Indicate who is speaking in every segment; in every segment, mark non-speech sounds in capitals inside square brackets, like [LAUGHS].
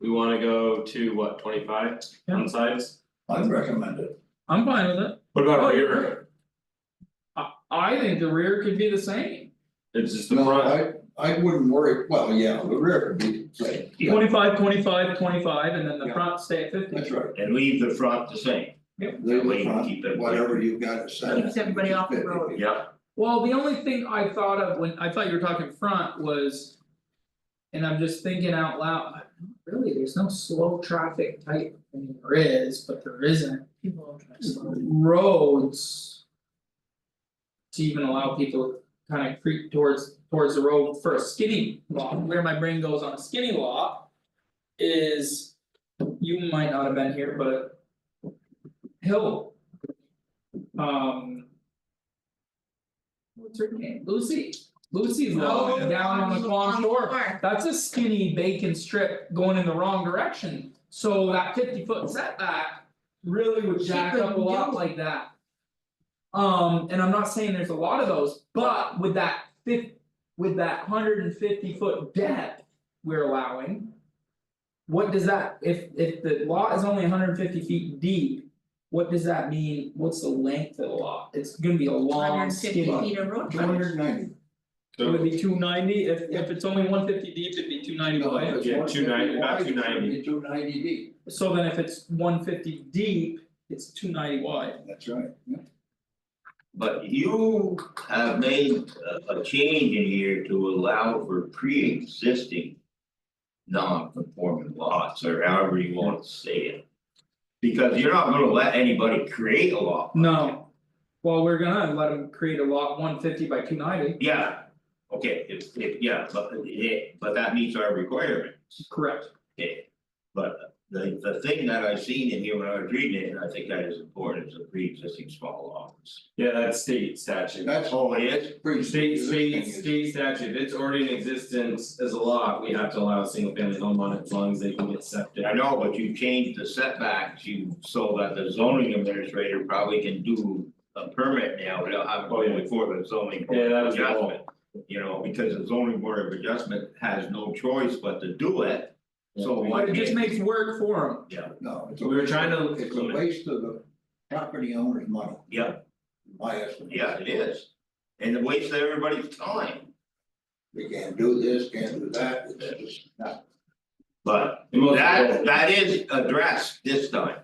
Speaker 1: we wanna go to what, twenty five on size?
Speaker 2: I'd recommend it.
Speaker 3: I'm fine with it,
Speaker 1: What about
Speaker 3: Oh,
Speaker 1: rear,
Speaker 3: I I think the rear could be the same.
Speaker 1: it's just the
Speaker 2: No,
Speaker 1: front,
Speaker 2: I I wouldn't worry, well, yeah, the rear could be, right, yeah,
Speaker 3: Twenty-five, twenty-five, twenty-five, and then the
Speaker 2: Yeah.
Speaker 3: front stay at fifty.
Speaker 2: that's right.
Speaker 4: and leave the front the same,
Speaker 2: Leave
Speaker 4: That way
Speaker 2: the
Speaker 4: you can
Speaker 2: front,
Speaker 4: keep it-
Speaker 2: whatever you got to say.
Speaker 5: Keeps everybody off the road.
Speaker 4: yeah,
Speaker 3: Well, the only thing I thought of when, I thought you were talking front was. And I'm just thinking out loud, really, there's no slow traffic type, I mean, there is, but there isn't
Speaker 5: People don't drive slow.
Speaker 3: roads. To even allow people to kind of creep towards towards the road for a skinny lot, where my brain goes on a skinny lot. Is. You might not have been here, but. Hill. Um. What's her name, Lucy, Lucy's lot
Speaker 5: Oh,
Speaker 3: down on the Quan
Speaker 5: on the
Speaker 3: Shore,
Speaker 5: shore.
Speaker 3: that's a skinny bacon strip going in the wrong direction. So that fifty foot setback really would
Speaker 5: She
Speaker 3: jack up a
Speaker 5: couldn't
Speaker 3: lot
Speaker 5: do it.
Speaker 3: like that. Um, and I'm not saying there's a lot of those, but with that fif- with that hundred and fifty foot depth we're allowing. What does that, if if the lot is only hundred and fifty feet deep, what does that mean, what's the length of the lot? It's gonna be a long
Speaker 5: 150
Speaker 3: skinny.
Speaker 5: feet of road
Speaker 2: Two
Speaker 5: frontage.
Speaker 2: hundred ninety,
Speaker 3: It would
Speaker 1: so
Speaker 3: be two ninety, if if it's only one fifty deep, it'd be two ninety
Speaker 2: no, if
Speaker 1: Yeah,
Speaker 2: it's
Speaker 1: 290, about 290.
Speaker 2: Two ninety D,
Speaker 3: So then if it's one fifty deep, it's two ninety wide.
Speaker 2: that's right, yeah.
Speaker 4: but you have made a a change in here to allow for pre-existing. Non-conforming lots, or however you want to say it. Because you're not gonna let anybody create a lot.
Speaker 3: No. Well, we're gonna let them create a lot one fifty by two ninety,
Speaker 4: Yeah, okay, if if, yeah, but it, but that meets our requirement.
Speaker 3: correct?
Speaker 4: Okay, but the the thing that I seen in here when I was reading it, and I think that is important, is the pre-existing small lots.
Speaker 1: yeah, that's state statute.
Speaker 2: That's
Speaker 4: Oh, it is,
Speaker 2: pretty.
Speaker 1: State
Speaker 2: this
Speaker 1: state
Speaker 2: thing is-
Speaker 1: state statute, if it's already in existence as a lot, we have to allow a single family home on it as long as they can get septic.
Speaker 4: I know, but you changed the setbacks, you, so that the zoning administrator probably can do a permit now, without having to go before the zoning. board of
Speaker 1: Oh, Yeah, that was the goal.
Speaker 4: adjustment. You know, because the zoning board of adjustment has no choice but to do it, so why
Speaker 3: But it just
Speaker 4: can't-
Speaker 3: makes work for them.
Speaker 2: No, it's a.
Speaker 1: We were trying to
Speaker 2: It's a
Speaker 1: limit,
Speaker 2: waste of the property owner's money,
Speaker 4: yeah,
Speaker 2: my estimate.
Speaker 4: yeah, it is. And it wastes everybody's time,
Speaker 2: They can't do this, can't do that, it's just not.
Speaker 4: but
Speaker 1: the most-
Speaker 4: That that is addressed this time.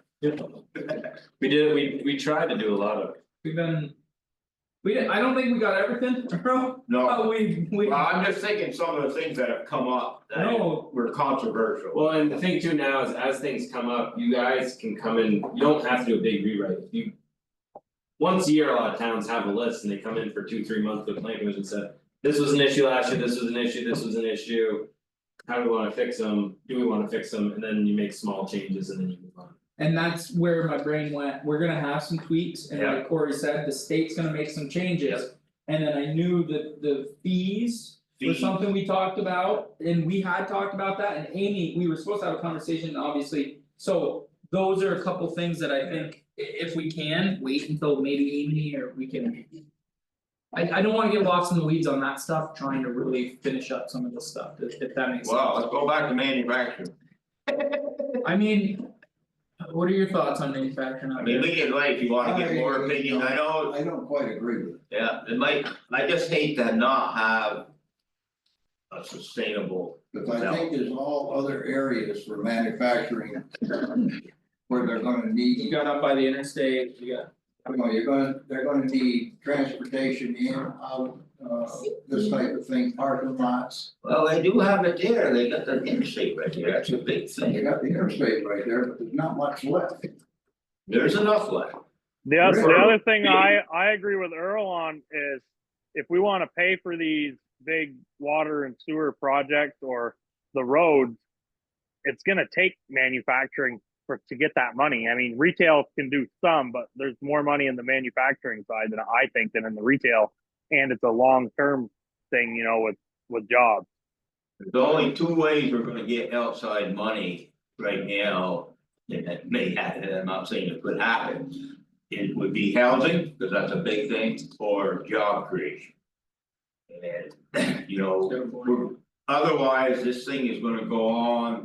Speaker 1: we did, we we tried to do a lot of it.
Speaker 3: We've been. We didn't, I don't think we got everything, [LAUGHS] bro,
Speaker 4: No,
Speaker 3: but we Oh, we.
Speaker 4: well, I'm just thinking some of the things that have come up that
Speaker 3: No,
Speaker 4: were controversial.
Speaker 1: Well, and the thing too now is as things come up, you guys can come in, you don't have to do a big rewrite, If you. Once a year, a lot of towns have a list and they come in for two, three months with planning commission and say, this was an issue last year, this was an issue, this was an issue. How do we wanna fix them, do we wanna fix them, and then you make small changes and then you move on.
Speaker 3: and that's where my brain went, we're gonna have some tweaks, and like Corey said, the state's gonna make some changes. And then I knew that the fees. was something we talked about, and we had talked about that, and Amy, we were supposed to have a conversation, obviously. So those are a couple things that I think i- if we can, wait until maybe Amy or we can. I I don't wanna get lost in the weeds on that stuff, trying to really finish up some of this stuff, if if that makes sense.
Speaker 4: Well, let's go back to manufacturing.
Speaker 3: I mean. What are your thoughts on manufacturing
Speaker 4: I
Speaker 3: out
Speaker 4: mean,
Speaker 3: there?
Speaker 4: we can like, if you wanna get more opinions, I know,
Speaker 2: I don't quite agree with it.
Speaker 4: yeah, it might, I just hate to not have. A sustainable,
Speaker 2: Cause I think there's all other areas for manufacturing. Where they're gonna
Speaker 3: You
Speaker 2: need,
Speaker 3: got up by the interstate, you got,
Speaker 2: you know, you're gonna, they're gonna need transportation in, out, uh, this type of thing, parking lots.
Speaker 4: well, they do have it there, they got the interstate right there, that's a big
Speaker 2: You
Speaker 4: thing,
Speaker 2: got the interstate right there, but there's not much left.
Speaker 4: there's enough left.
Speaker 6: The other, the
Speaker 4: Sure.
Speaker 6: other thing I, I agree with Earl on is if we want to pay for these big water and sewer projects or the roads, it's going to take manufacturing for, to get that money. I mean, retail can do some, but there's more money in the manufacturing side than I think than in the retail. And it's a long-term thing, you know, with, with jobs.
Speaker 4: There's only two ways we're gonna get outside money right now, and that may happen, I'm not saying it could happen. It would be housing, because that's a big thing, or job creation. And, you know, we're- otherwise, this thing is gonna go on